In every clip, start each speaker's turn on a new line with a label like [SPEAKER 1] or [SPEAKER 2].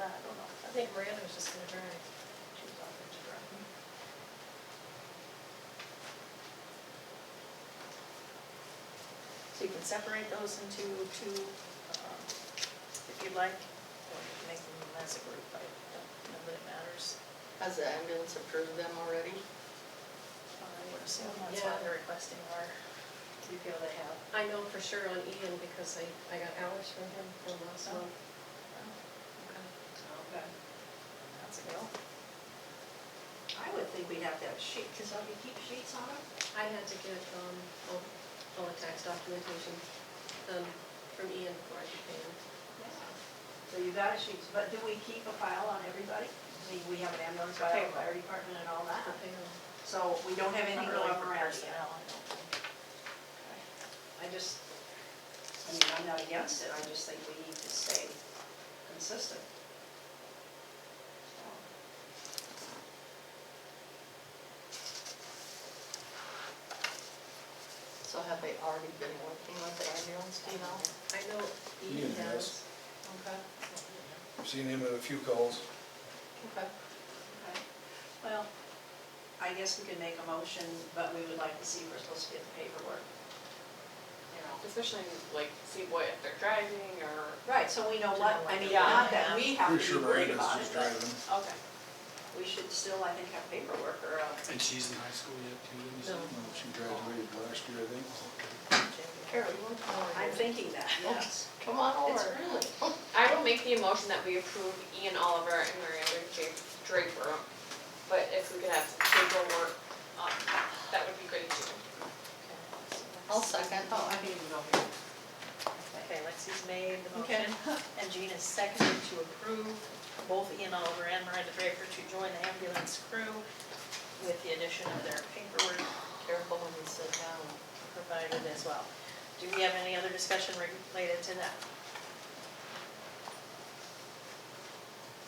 [SPEAKER 1] uh,
[SPEAKER 2] think Miranda was just gonna drive. She was offering to drive.
[SPEAKER 1] So you can separate those into two, um, if you'd like, or you can make them as a group, I don't know that it matters.
[SPEAKER 3] Has the ambulance approved them already?
[SPEAKER 1] I would assume that's why
[SPEAKER 2] Yeah.
[SPEAKER 1] they're requesting more. Do you feel they have?
[SPEAKER 2] I know for sure on Ian because I, I got hours from him from last month.
[SPEAKER 1] Okay. That's a go.
[SPEAKER 4] I would think we'd have to have sheet, because don't you keep sheets on them?
[SPEAKER 2] I had to get, um, all, all the tax documentation, um, from Ian before I could pay him.
[SPEAKER 4] So you got a sheet, but do we keep a file on everybody? I mean, we have an ambulance file,
[SPEAKER 1] Okay.
[SPEAKER 4] fire department and all that,
[SPEAKER 2] For payroll.
[SPEAKER 4] so we don't have anything
[SPEAKER 1] Not
[SPEAKER 4] going
[SPEAKER 1] really for
[SPEAKER 4] around yet.
[SPEAKER 1] personnel, I don't think.
[SPEAKER 4] I just, I mean, I'm not against it, I just think we need to stay consistent.
[SPEAKER 3] So have they already been working with the ambulance, do you know?
[SPEAKER 2] I know Ian
[SPEAKER 5] Ian
[SPEAKER 2] has.
[SPEAKER 5] has.
[SPEAKER 3] Okay,
[SPEAKER 5] I've seen him in a few calls.
[SPEAKER 3] okay.
[SPEAKER 4] Okay. Well, I guess we could make a motion, but we would like to see if we're supposed to get the paperwork. You know.
[SPEAKER 6] Especially like see what if they're driving or
[SPEAKER 4] Right, so we know what, I mean,
[SPEAKER 6] Yeah.
[SPEAKER 4] not that we have
[SPEAKER 5] Pretty
[SPEAKER 4] to
[SPEAKER 5] sure
[SPEAKER 4] be worried
[SPEAKER 5] Miranda's
[SPEAKER 4] about it,
[SPEAKER 5] just
[SPEAKER 4] but-
[SPEAKER 5] driving.
[SPEAKER 4] okay. We should still, I think, have paperwork or, uh,
[SPEAKER 7] And she's in high school yet too, isn't she?
[SPEAKER 2] No.
[SPEAKER 5] Well, She graduated last year, I think.
[SPEAKER 3] Carol, you want to come over
[SPEAKER 4] I'm
[SPEAKER 3] here?
[SPEAKER 4] thinking that, yes.
[SPEAKER 3] Come on over.
[SPEAKER 4] It's
[SPEAKER 3] really.
[SPEAKER 6] I will make the emotion that we approve Ian Oliver and Miranda J- Draper. But if we could have some paperwork, um, that would be great too.
[SPEAKER 3] I'll second.
[SPEAKER 4] Oh, I didn't even go here.
[SPEAKER 1] Okay, Lexi's made the
[SPEAKER 3] Okay.
[SPEAKER 1] motion, and Gina's seconded to approve both Ian Oliver and Miranda Draper to join the ambulance crew with the addition of their paperwork
[SPEAKER 3] Careful when you sit down.
[SPEAKER 1] provided as well. Do we have any other discussion related to that?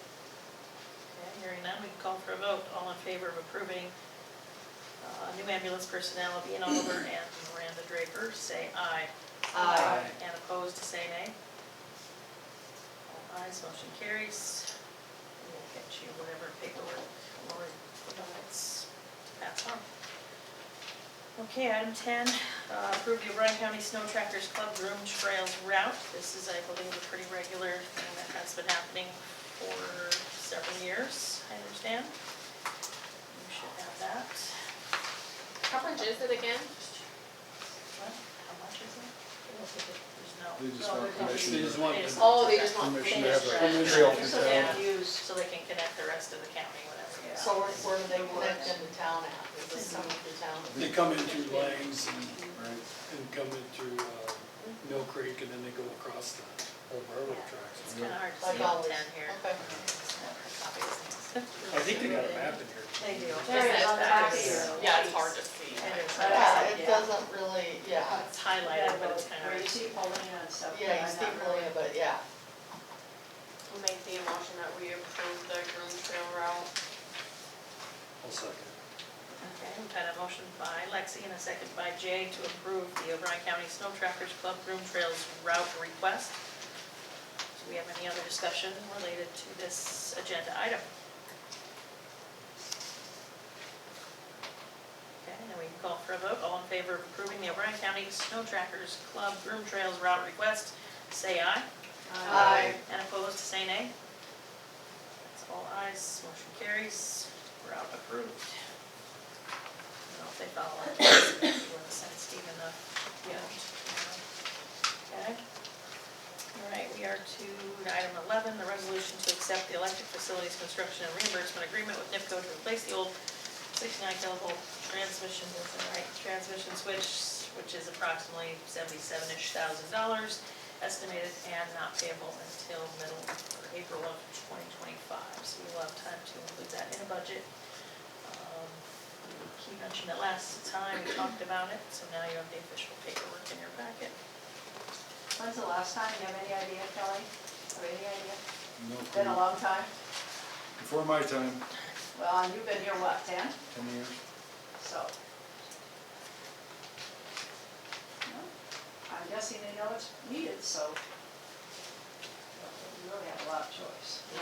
[SPEAKER 1] Okay, hearing none, we can call for a vote. All in favor of approving uh, new ambulance personnel of Ian Oliver and Miranda Draper, say aye.
[SPEAKER 3] Aye.
[SPEAKER 1] And opposed, say nay. All ayes, motion carries. We'll get you whatever paperwork or documents to pass on. Okay, item 10, uh, approve the O'Brien County Snow Trackers Club Groom Trails Route. This is, I believe, a pretty regular thing that has been happening for several years, I understand. You should have that.
[SPEAKER 6] How much is it again?
[SPEAKER 1] What, how much is it? There's
[SPEAKER 5] They
[SPEAKER 1] no,
[SPEAKER 5] just want permission.
[SPEAKER 7] They just want
[SPEAKER 1] They just-
[SPEAKER 6] Oh, they just want
[SPEAKER 5] Permission to
[SPEAKER 6] finished.
[SPEAKER 5] have a
[SPEAKER 1] Finished.
[SPEAKER 5] trail through
[SPEAKER 4] So they
[SPEAKER 5] town.
[SPEAKER 4] have used,
[SPEAKER 1] so they can connect the rest of the county, whatever.
[SPEAKER 3] So where, where do they connect into town at? Is this some of the town?
[SPEAKER 7] They come in through Langs and,
[SPEAKER 5] Right.
[SPEAKER 7] and come in through, uh, Mill Creek and then they go across the old railroad
[SPEAKER 1] It's
[SPEAKER 7] tracks.
[SPEAKER 1] kind of hard to
[SPEAKER 3] Like
[SPEAKER 1] see all
[SPEAKER 3] always?
[SPEAKER 1] 10 here.
[SPEAKER 3] Okay.
[SPEAKER 7] I think they got a map in here.
[SPEAKER 1] They do.
[SPEAKER 6] There it is on the back
[SPEAKER 1] It's-
[SPEAKER 4] here.
[SPEAKER 6] Yeah, it's hard to
[SPEAKER 1] it
[SPEAKER 6] see.
[SPEAKER 1] is.
[SPEAKER 3] Yeah,
[SPEAKER 4] Yeah.
[SPEAKER 3] it doesn't really, yeah.
[SPEAKER 1] It's highlighted, but it's kind of.
[SPEAKER 4] where you see Paulina and stuff.
[SPEAKER 3] Yeah, you
[SPEAKER 4] I'm
[SPEAKER 3] see
[SPEAKER 4] not really-
[SPEAKER 3] Maria, but yeah.
[SPEAKER 6] We'll make the emotion that we approve the groom trail route.
[SPEAKER 7] I'll second.
[SPEAKER 1] Okay, we've had a motion by Lexi and a second by Jay to approve the O'Brien County Snow Trackers Club Groom Trails route request. Do we have any other discussion related to this agenda item? Okay, now we can call for a vote. All in favor of approving the O'Brien County Snow Trackers Club Groom Trails route request, say aye.
[SPEAKER 4] Uh,
[SPEAKER 3] Aye.
[SPEAKER 1] And opposed, say nay. That's all ayes, motion carries, route approved. I don't know if they follow up, if you want to send Stephen the, yeah. Okay. All right, we are to item 11, the resolution to accept the electric facilities construction and reimbursement agreement with NIPCO to replace the old 69 kilovolt transmission, is that right, transmission switch, which is approximately 77-ish thousand dollars estimated and not payable until middle or April of 2025. So we will have time to include that in a budget. Um, He mentioned it last time, we talked about it, so now you have the official paperwork in your packet.
[SPEAKER 4] When's the last time, you have any idea, Kelly? Have any idea?
[SPEAKER 5] No
[SPEAKER 4] Been a
[SPEAKER 5] clue.
[SPEAKER 4] long time?
[SPEAKER 5] Before my time,
[SPEAKER 4] Well, and you've been here, what, ten?
[SPEAKER 5] ten years.
[SPEAKER 4] So. No, I'm guessing they know it's needed, so. You really have a lot of choice.